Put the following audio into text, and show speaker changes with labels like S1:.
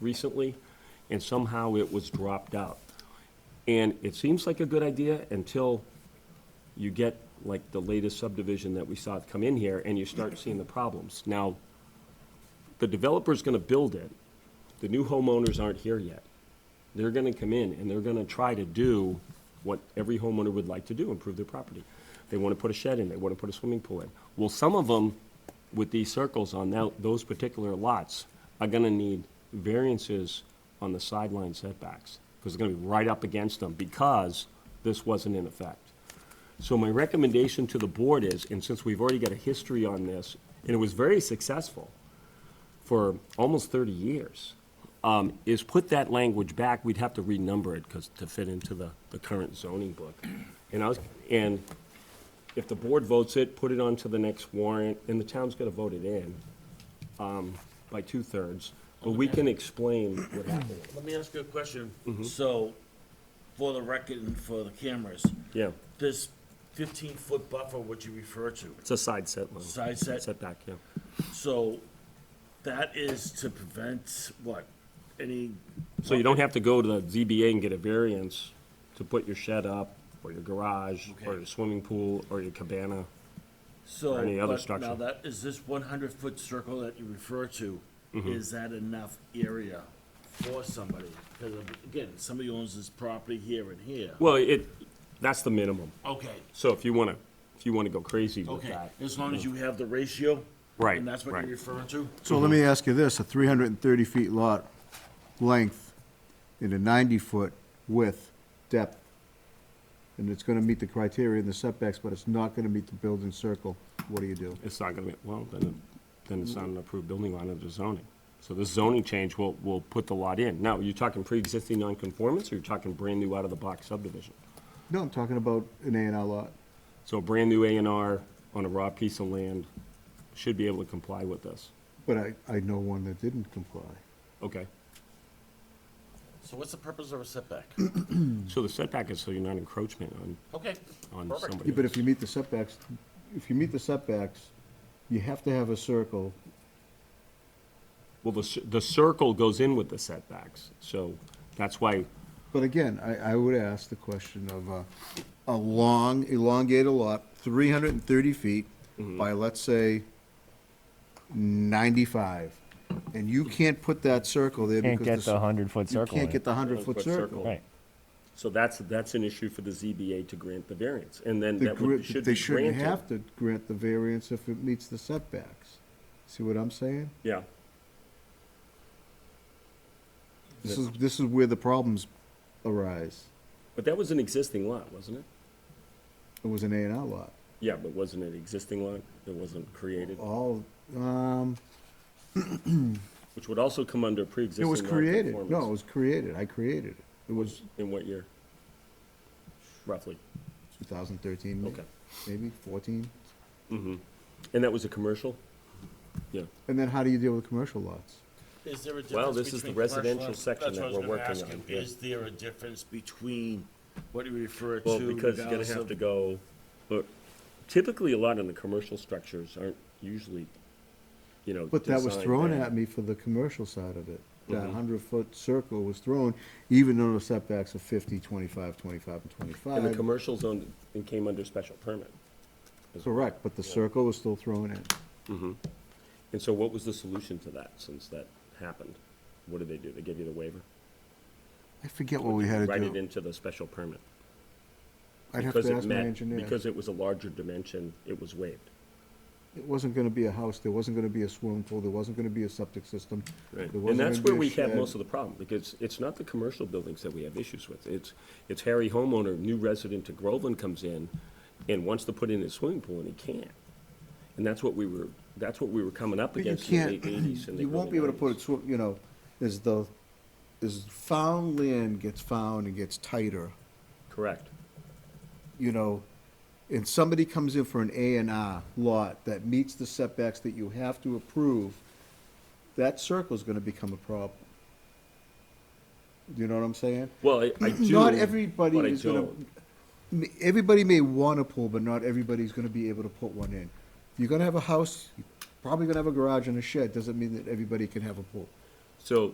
S1: recently, and somehow it was dropped out. And it seems like a good idea until you get like the latest subdivision that we saw come in here, and you start seeing the problems. Now, the developer's gonna build it, the new homeowners aren't here yet. They're gonna come in and they're gonna try to do what every homeowner would like to do, improve their property. They wanna put a shed in, they wanna put a swimming pool in. Well, some of them with these circles on now, those particular lots are gonna need variances on the sideline setbacks, because they're gonna be right up against them, because this wasn't in effect. So my recommendation to the board is, and since we've already got a history on this, and it was very successful for almost 30 years, um, is put that language back. We'd have to renumber it because to fit into the, the current zoning book. And I was, and if the board votes it, put it onto the next warrant, and the town's gonna vote it in, um, by two-thirds. But we can explain what happened.
S2: Let me ask you a question.
S1: Mm-hmm.
S2: So, for the record and for the cameras,
S1: Yeah,
S2: this fifteen-foot buffer, what you refer to,
S1: it's a side set line.
S2: Side set.
S1: Setback, yeah.
S2: so that is to prevent what? Any,
S1: So you don't have to go to the ZBA and get a variance to put your shed up, or your garage, or
S2: Okay.
S1: your swimming pool, or your cabana.
S2: so.
S1: any other
S2: but
S1: structure.
S2: Now that, is this one hundred-foot circle that you refer to,
S1: Mm-hmm.
S2: is that enough area for somebody? Because again, somebody owns this property here and here.
S1: Well, it, that's the minimum.
S2: Okay,
S1: So if you want to, if you want to go crazy with
S2: okay,
S1: that. Mm-hmm.
S2: as long as you have the ratio.
S1: Right,
S2: And that's what
S1: right.
S2: you're referring to?
S3: So let me ask you this, a 330 feet lot length and a 90-foot width depth, and it's going to meet the criteria and the setbacks, but it's not going to meet the building circle, what do you do?
S1: It's not going to be, well, then, it- then it's not an approved building line under zoning. So this zoning change will, will put the lot in. Now, you're talking pre-existing non-conformance, or you're talking brand-new out-of-the-box subdivision?
S3: No, I'm talking about an A and R lot.
S1: So a brand-new A and R on a raw piece of land should be able to comply with this.
S3: But I, I know one that didn't comply.
S1: Okay.
S2: So what's the purpose of a setback?
S3: Mm-hmm.
S1: So the setback is so you're not encroachment on,
S2: Okay,
S1: on
S2: Perfect.
S1: somebody
S3: Yeah, but if
S1: else.
S3: you meet the setbacks, if you meet the setbacks, you have to have a circle.
S1: Well, the, cir- the circle goes in with the setbacks, so that's why,
S3: But again, I, I would ask the question of a, a long, elongated lot, three hundred and thirty feet
S1: Mm-hmm.
S3: by, let's say, ninety-five. And you can't put that circle there
S4: Can't get
S3: because.
S4: the
S3: s-
S4: 100-foot circle.
S3: You
S4: in
S3: can't
S4: it.
S3: get the hundred-foot
S1: 100-foot circle.
S3: circle.
S4: Right.
S1: so that's, that's an issue for the ZBA to grant the variance, and then
S3: The
S1: that would,
S3: gri-
S1: should
S3: They
S1: be
S3: shouldn't
S1: granted.
S3: have to grant the variance if it meets the setbacks. See what I'm saying?
S1: Yeah,
S3: This is, this is where the problems arise.
S1: but that was an existing lot, wasn't it?
S3: It was an A and R lot.
S1: Yeah, but wasn't it existing lot that wasn't created,
S3: All, um,
S1: which would also come under
S3: it
S1: pre-existing
S3: was created.
S1: non-conformance.
S3: No, it was created. I created it. It was
S1: In what year? Roughly,
S3: 2013,
S1: Okay.
S3: maybe 14.
S1: and that was a commercial? Yeah,
S3: And then how do you deal with commercial lots?
S2: Is there a difference?
S1: Well, this is the
S2: between commercial
S1: residential
S2: and-
S1: section
S2: that's
S1: that
S2: what I was
S1: we're
S2: gonna
S1: working
S2: ask
S1: on,
S2: you.
S1: yeah.
S2: Is there a difference between what you refer to?
S1: well, because you're gonna
S2: regardless
S1: have
S2: of-
S1: to go, look, typically, a lot of the commercial structures aren't usually, you know,
S3: But that was
S1: designed
S3: thrown
S1: that-
S3: at me for the commercial side of it.
S1: Mm-hmm.
S3: That 100-foot circle was thrown, even though the setbacks are 50, 25, 25, and
S1: And the
S3: 25.
S1: commercial zone, it came under special permit.
S3: Correct, but the circle was still thrown in.
S1: And so what was the solution to that, since that happened? What did they do? They gave you the waiver?
S3: I forget what we had
S1: Write
S3: to
S1: it
S3: do.
S1: into the special permit.
S3: I'd have
S1: because
S3: to
S1: it
S3: ask my
S1: met-
S3: engineer.
S1: Because it was a larger dimension, it was waived.
S3: It wasn't going to be a house, there wasn't going to be a swimming pool, there wasn't going to be a septic system. there
S1: And
S3: wasn't
S1: that's
S3: gonna
S1: where
S3: be a
S1: we have
S3: shed.
S1: most of the problem, because it's not the commercial buildings that we have issues with. It's, it's Harry homeowner, new resident to Groveland comes in and wants to put in his swimming pool, and he can't. And that's what we were, that's what we were coming up
S3: But you
S1: against in the
S3: can't,
S1: late eighties and the
S3: you won't be able to put it, swi- you know, as the, as found land gets found and gets tighter,
S1: Correct.
S3: you know, and somebody comes in for an A and R lot that meets the setbacks that you have to approve, that circle's gonna become a problem. Do you know what I'm saying?
S1: Well, I I do.
S3: Not everybody
S1: but I
S3: is gonna,
S1: don't.
S3: m- everybody may want a pool, but not everybody's gonna be able to put one in. You're gonna have a house, you're probably gonna have a garage and a shed, doesn't mean that everybody can have a pool.
S1: So,